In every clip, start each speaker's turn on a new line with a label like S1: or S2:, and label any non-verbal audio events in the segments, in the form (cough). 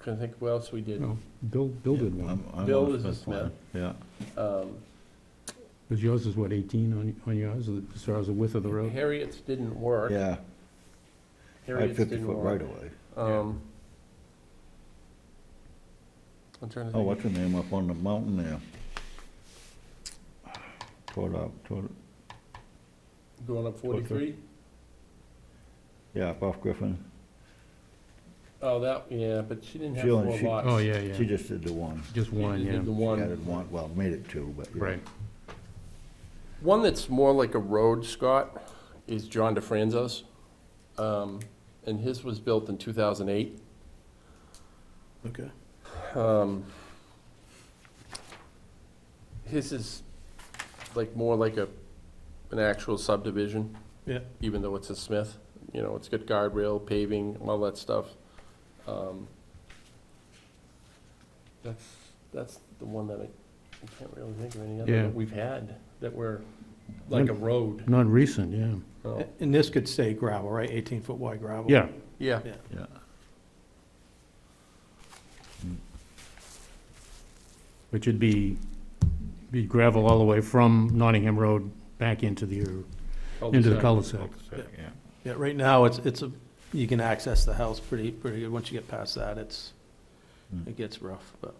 S1: Can I think what else we did?
S2: No, Bill, Bill did
S3: Yeah, um,
S2: one,
S3: I'm- I'm
S1: Bill
S3: off
S1: is a
S3: this one. Yeah,
S1: Um,
S2: because yours is what, 18 on, on yours, as far as the width of the road?
S1: Harriet's didn't work.
S3: yeah, I
S1: Harriet's
S3: have fifty
S1: didn't
S3: foot right
S1: work.
S3: away.
S1: Um, I'm trying to
S3: Oh,
S1: think.
S3: what's her name up on the mountain there? Toward up, toward,
S1: Going up forty-three?
S3: yeah, up off Griffin.
S1: Oh, that, yeah, but she didn't have
S3: She only-
S1: four
S3: she-
S1: lots.
S2: Oh, yeah,
S3: She
S2: yeah,
S3: just did the one.
S2: just one,
S1: She did
S2: yeah,
S1: the
S3: She
S1: one.
S3: added one, well, made it two, but. yeah.
S2: right.
S1: One that's more like a road, Scott, is John DeFranzo's. Um, And his was built in 2008.
S4: Okay.
S1: Um, His is like, more like a, an actual subdivision.
S4: Yeah.
S1: Even though it's a Smith, you know, it's got guardrail, paving, all that stuff. Um, That's, that's the one that I I can't really think of any other
S2: Yeah.
S1: that we've had, that were like a road.
S2: Non-recent, yeah,
S1: Oh,
S4: And this could stay gravel, right? 18-foot wide gravel?
S2: yeah,
S1: Yeah,
S3: Yeah.
S2: which would be, be gravel all the way from Nottingham Road back into the, into the cul-de-sac.
S3: Yeah.
S4: Yeah, right now, it's, it's a, you can access the house pretty, pretty good. Once you get past that, it's,
S3: Hmm.
S4: it gets rough, but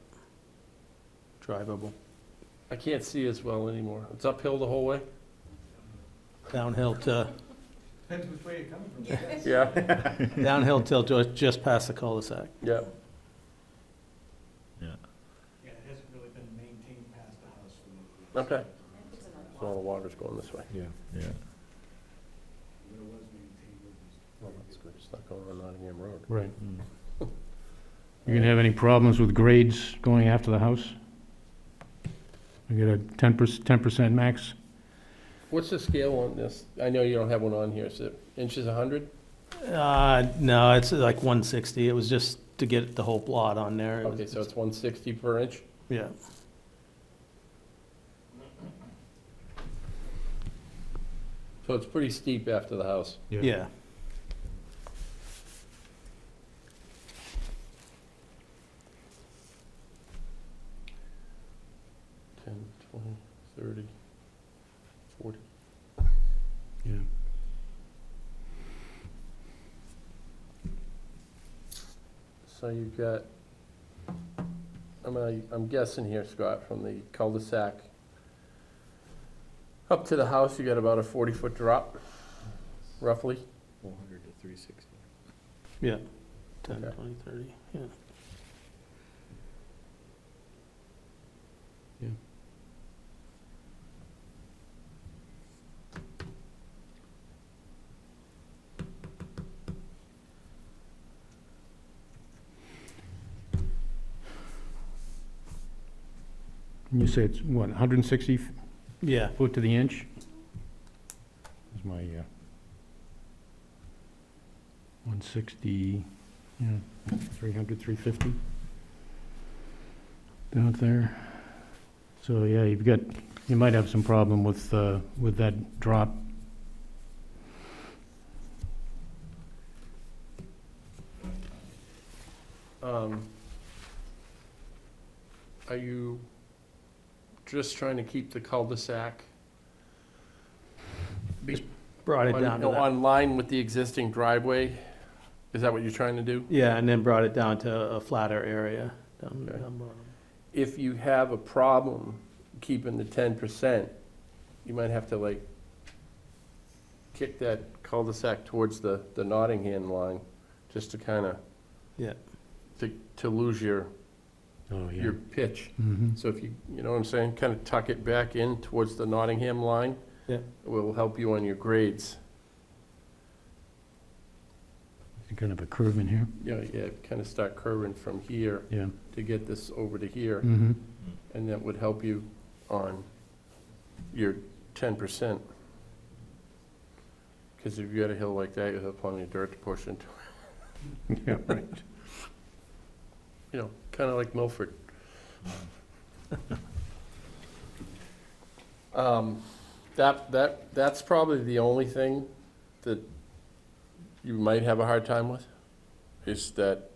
S4: drivable.
S1: I can't see as well anymore. It's uphill the whole (laughs) way?
S4: Downhill to,
S1: Yeah.
S4: downhill till ju- just past the cul-de-sac.
S1: Yeah.
S5: Yeah, it hasn't really been maintained past the house. when it was-
S1: Okay. So all the water's going this way.
S2: Yeah.
S3: Yeah.
S5: When it was maintained, it was
S1: Well, that's good. It's not going on Nottingham Road.
S2: Right.
S3: Mm.
S2: You gonna have any problems with grades going after the house? I get a 10 percent, 10% max?
S1: What's the scale on this? I know you don't have one on here. Is it inches a hundred?
S4: Uh, no, it's like 160. It was just to get the whole plot on there. It was-
S1: Okay, so it's one sixty per inch?
S4: Yeah.
S1: So it's pretty steep after the house.
S4: Yeah.
S1: Ten, twenty, thirty, forty.
S2: Yeah.
S1: So you've got, I'm, I- I'm guessing here, Scott, from the cul-de-sac up to the house, you got about a forty-foot drop, roughly?
S5: 400 to 360.
S4: 10,
S1: Okay.
S4: 20, 30, yeah.
S2: You say it's, what, 160
S4: Yeah,
S2: foot to the inch? Is my, uh, 160, yeah, 300, 350 down there. So, yeah, you've got, you might have some problem with, uh, with that drop.
S1: Um, Are you just trying to keep the cul-de-sac
S4: brought it
S1: on
S4: down to
S1: no,
S4: that.
S1: on line with the existing driveway? Is that what you're trying to do?
S4: Yeah, and then brought it down to a flatter area down,
S1: Okay.
S4: down bottom.
S1: If you have a problem keeping the ten percent, you might have to like kick that cul-de-sac towards the, the Nottingham line, just to kind of
S4: Yeah.
S1: to, to lose your,
S2: Oh,
S1: your pitch.
S2: Mhm.
S1: So if you, you know what I'm saying, kind of tuck it back in towards the Nottingham line.
S4: Yeah.
S1: It Will help you on your grades.
S2: Kind of a curve in here,
S1: You know, yeah, kind of start curving from here
S2: yeah.
S1: to get this over to here,
S2: Mm-hmm.
S1: and that would help you on your ten percent. Because if you got a hill like that, you'll have plenty of dirt to push into,
S2: (laughs) Yeah, right.
S1: you know, kind of like Milford. Um, That, that, that's probably the only thing that you might have a hard time with, is that